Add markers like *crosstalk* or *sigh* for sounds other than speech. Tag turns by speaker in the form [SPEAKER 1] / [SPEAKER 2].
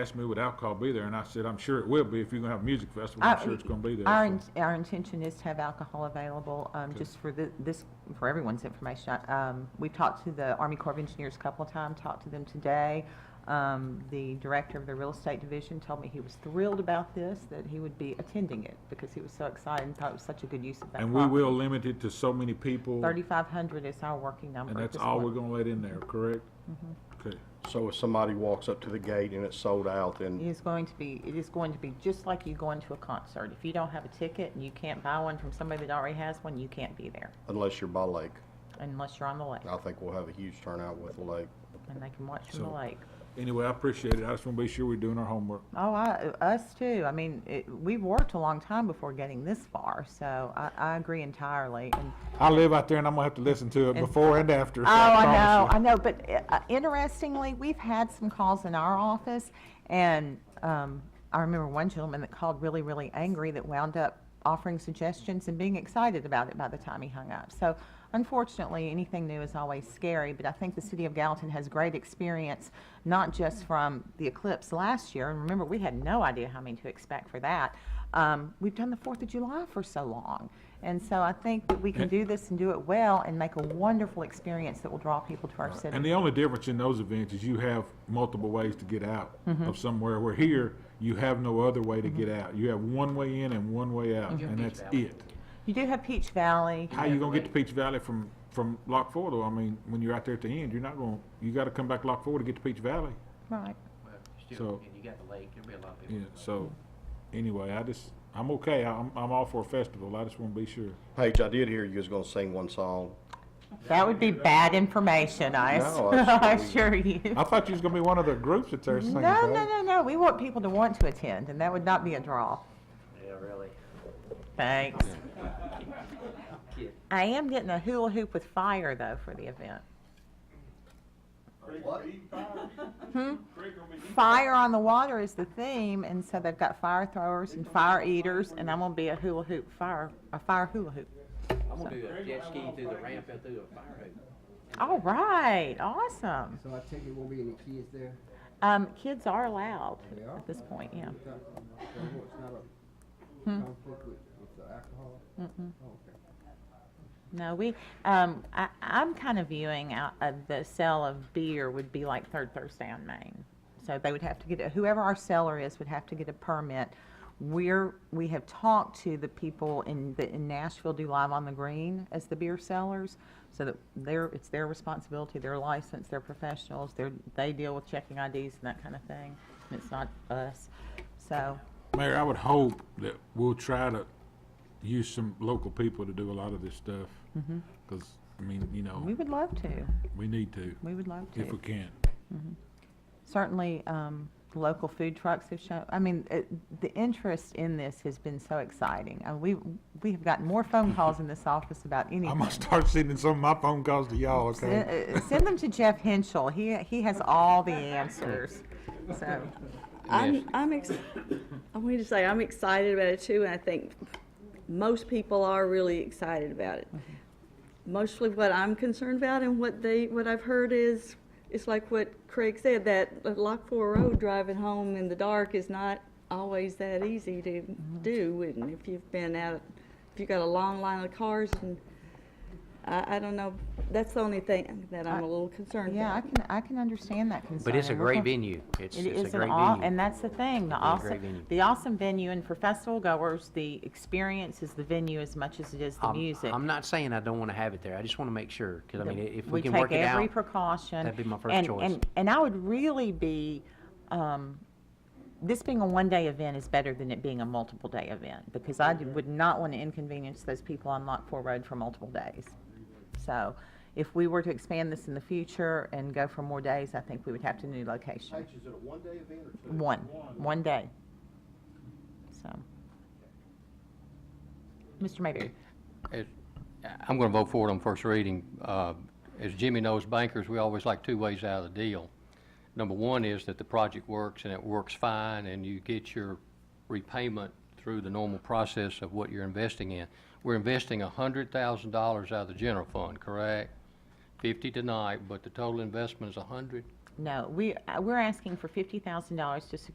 [SPEAKER 1] asked me would alcohol be there, and I said, I'm sure it will be, if you're gonna have a music festival,
[SPEAKER 2] Uh,
[SPEAKER 1] I'm sure it's gonna be there.
[SPEAKER 2] Our,
[SPEAKER 1] so.
[SPEAKER 2] in- our intention is to have alcohol available, um,
[SPEAKER 1] Okay.
[SPEAKER 2] just for the, this, for everyone's information. Um, we've talked to the Army Corps of Engineers a couple of times, talked to them today. Um, the director of the real estate division told me he was thrilled about this, that he would be attending it because he was so excited and thought it was such a good use of that
[SPEAKER 1] And we
[SPEAKER 2] property.
[SPEAKER 1] will limit it to so many people, and
[SPEAKER 2] Thirty-five hundred is our working number. at
[SPEAKER 1] that's
[SPEAKER 2] this Mm-hmm.
[SPEAKER 1] all we're
[SPEAKER 2] point.
[SPEAKER 1] gonna let in there, correct? Okay,
[SPEAKER 3] So if somebody walks up to the gate and it's sold out,
[SPEAKER 2] It
[SPEAKER 3] then,
[SPEAKER 2] is going to be, it is going to be just like you going to a concert. If you don't have a ticket and you can't buy one from somebody that already has one, you can't be there
[SPEAKER 3] unless you're by lake,
[SPEAKER 2] unless you're on the lake.
[SPEAKER 3] I think we'll have a huge turnout with the lake.
[SPEAKER 2] And they can watch from the
[SPEAKER 1] So-
[SPEAKER 2] lake.
[SPEAKER 1] anyway, I appreciate it, I just wanna be sure we're doing our homework.
[SPEAKER 2] Oh, I, us too. I mean, it, we've worked a long time before getting this far, so I, I agree entirely. And,
[SPEAKER 1] I live out there and I'm gonna have to listen to it
[SPEAKER 2] And-
[SPEAKER 1] before and after.
[SPEAKER 2] oh,
[SPEAKER 1] so
[SPEAKER 2] I
[SPEAKER 1] promise
[SPEAKER 2] know,
[SPEAKER 1] you.
[SPEAKER 2] I know, but uh, interestingly, we've had some calls in our office, and, um, I remember one gentleman that called really, really angry that wound up offering suggestions and being excited about it by the time he hung up. So unfortunately, anything new is always scary, but I think the city of Gallatin has great experience, not just from the eclipse last year, and remember, we had no idea how many to expect for that. Um, we've done the Fourth of July for so long, and so I think that we can do this and do it well and make a wonderful experience that will draw people to our
[SPEAKER 1] And
[SPEAKER 2] city.
[SPEAKER 1] the only difference in those events is you have multiple ways to get out
[SPEAKER 2] Mm-hmm.
[SPEAKER 1] of somewhere, where here, you have no other way to get out. You have one way in and one way out, and that's it.
[SPEAKER 2] You do have Peach Valley.
[SPEAKER 1] How you gonna get to Peach Valley from, from Lock Four though? I mean, when you're out there at the end, you're not gonna, you gotta come back Lock Four to get to Peach Valley.
[SPEAKER 2] Right.
[SPEAKER 4] Well, you
[SPEAKER 1] So-
[SPEAKER 4] still, and you got the lake, there'll be a lot of people.
[SPEAKER 1] Yeah,
[SPEAKER 4] that go.
[SPEAKER 1] so, anyway, I just, I'm okay. I'm, I'm all for a festival. I just wanna be sure.
[SPEAKER 3] Paige, I did hear you was gonna sing one song.
[SPEAKER 2] That would be bad information, I *laughs*
[SPEAKER 3] No,
[SPEAKER 2] ass- I
[SPEAKER 3] that's-
[SPEAKER 2] assure you.
[SPEAKER 1] I thought you was gonna be one of the groups that's there
[SPEAKER 2] No,
[SPEAKER 1] singing.
[SPEAKER 2] no,
[SPEAKER 1] Paige.
[SPEAKER 2] no, no, we want people to want to attend, and that would not be a draw.
[SPEAKER 4] Yeah, really.
[SPEAKER 2] Thanks. I am getting a hula hoop with fire, though, for the event. Hmm? Fire on the water is the theme, and so they've got fire throwers and fire eaters, and I'm gonna be a hula hoop fire, a fire hula hoop.
[SPEAKER 4] I'm gonna do a jet ski through the ramp and through a fire hose.
[SPEAKER 2] All right, awesome.
[SPEAKER 5] So I take it won't be any kids there?
[SPEAKER 2] Um, kids are allowed
[SPEAKER 5] They are?
[SPEAKER 2] at this point, yeah.
[SPEAKER 5] So It's not a conflict with, with the alcohol? Mm-mm. Okay.
[SPEAKER 2] No, we, um, I, I'm kind of viewing out of the sale of beer would be like Third Thursday on Main. So they would have to get, a- whoever our seller is would have to get a permit. We're, we have talked to the people in, the in Nashville do Live on the Green as the beer sellers. So that they're, it's their responsibility, they're licensed, they're professionals, they're, they deal with checking IDs and that kind of thing. It's not us, so.
[SPEAKER 1] Mayor, I would hope that we'll try to use some local people to do a lot of this stuff.
[SPEAKER 2] Mm-hmm.
[SPEAKER 1] Cause, I mean, you
[SPEAKER 2] We
[SPEAKER 1] know,
[SPEAKER 2] would love to,
[SPEAKER 1] we need to,
[SPEAKER 2] we would love to.
[SPEAKER 1] if we can.
[SPEAKER 2] Mm-hmm. certainly um, local food trucks have shown. I mean, it, the interest in this has been so exciting. And we we have gotten more
[SPEAKER 6] *laughs*
[SPEAKER 2] phone calls in this office about
[SPEAKER 1] I'm
[SPEAKER 2] anything.
[SPEAKER 1] gonna start sending some of my phone calls to y'all, okay?
[SPEAKER 2] Send, uh, send them to Jeff Henschel. He he has all the answers. So
[SPEAKER 7] I'm, I'm, ex- I wanted to say, I'm excited about it too, and I think most people are really excited about it.
[SPEAKER 2] Mm-hmm.
[SPEAKER 7] Mostly what I'm concerned about and what they, what I've heard is, it's like what Craig said, that Lock Four Road driving home in the dark is not always that easy to
[SPEAKER 2] Mm-hmm.
[SPEAKER 7] do, and if you've been out, if you've got a long line of cars and, I, I don't know, that's the only thing that I'm a little concerned
[SPEAKER 2] yeah, I
[SPEAKER 7] about.
[SPEAKER 2] can I can understand that concern.
[SPEAKER 6] But it's a
[SPEAKER 2] and we're
[SPEAKER 6] great
[SPEAKER 2] gonna-
[SPEAKER 6] venue. It's,
[SPEAKER 2] It
[SPEAKER 6] it's a
[SPEAKER 2] is an
[SPEAKER 6] great
[SPEAKER 2] aw,
[SPEAKER 6] venue.
[SPEAKER 2] and that's the thing, the
[SPEAKER 6] It'd be a great
[SPEAKER 2] awesome,
[SPEAKER 6] venue.
[SPEAKER 2] the awesome venue, and for festival goers, the experience is the venue as much as it is the
[SPEAKER 6] I'm-
[SPEAKER 2] music.
[SPEAKER 6] I'm not saying I don't want to have it there. I just want to make sure, because I mean, if we
[SPEAKER 2] we
[SPEAKER 6] can work
[SPEAKER 2] take
[SPEAKER 6] it
[SPEAKER 2] every
[SPEAKER 6] out.
[SPEAKER 2] precaution.
[SPEAKER 6] that'd be my first
[SPEAKER 2] and-
[SPEAKER 6] choice.
[SPEAKER 2] And, and I would really be, um, this being a one-day event is better than it being a multiple-day event, because I d- would not want to inconvenience those people on Lock Four Road for multiple days. So if we were to expand this in the future and go for more days, I think we would have to new location.
[SPEAKER 3] is it a one-day event or two?
[SPEAKER 2] One, one day. So. Mr. Mayberry,
[SPEAKER 8] As- I'm going to vote for it on first reading. Uh, As Jimmy knows, bankers, we always like two ways out of the deal. Number one is that the project works and it works fine, and you get your repayment through the normal process of what you're investing in. We're investing $100,000 out of the general fund, correct? 50 tonight, but the total investment is 100.
[SPEAKER 2] no, we, uh, we're asking for fifty thousand dollars to secure